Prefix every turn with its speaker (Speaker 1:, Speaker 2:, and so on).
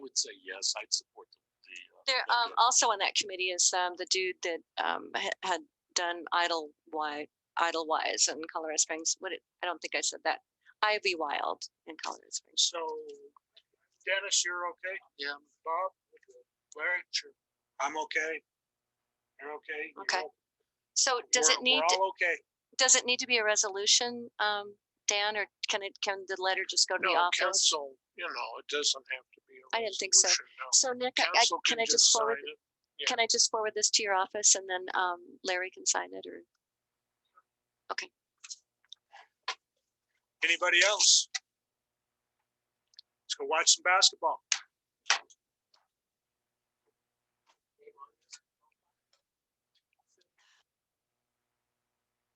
Speaker 1: would say yes, I'd support the. the, uh,
Speaker 2: There, um,
Speaker 1: amendment.
Speaker 2: also on that committee is, um, the dude that, um, ha- had done Idlewise, Idlewise in Colorado Springs. What, it- I don't think I said that. Ivy Wild in Colorado Springs.
Speaker 3: So Dennis, you're okay?
Speaker 1: Yeah.
Speaker 3: Bob? Larry? Sure. I'm okay. You're okay? You're
Speaker 2: Okay.
Speaker 3: o-
Speaker 2: So does
Speaker 3: we're-
Speaker 2: it need,
Speaker 3: We're
Speaker 2: to-
Speaker 3: all okay.
Speaker 2: does it need to be a resolution, um, Dan, or can it, can the letter just go to the
Speaker 3: No,
Speaker 2: office?
Speaker 3: council, you know, it doesn't have to be. I
Speaker 2: I didn't think so. So Nick, I- I,
Speaker 3: Council
Speaker 2: can I just forward,
Speaker 3: sign it. yeah.
Speaker 2: can I just forward this to your office and then, um, Larry can sign it or?
Speaker 3: Anybody else? Let's go watch some basketball.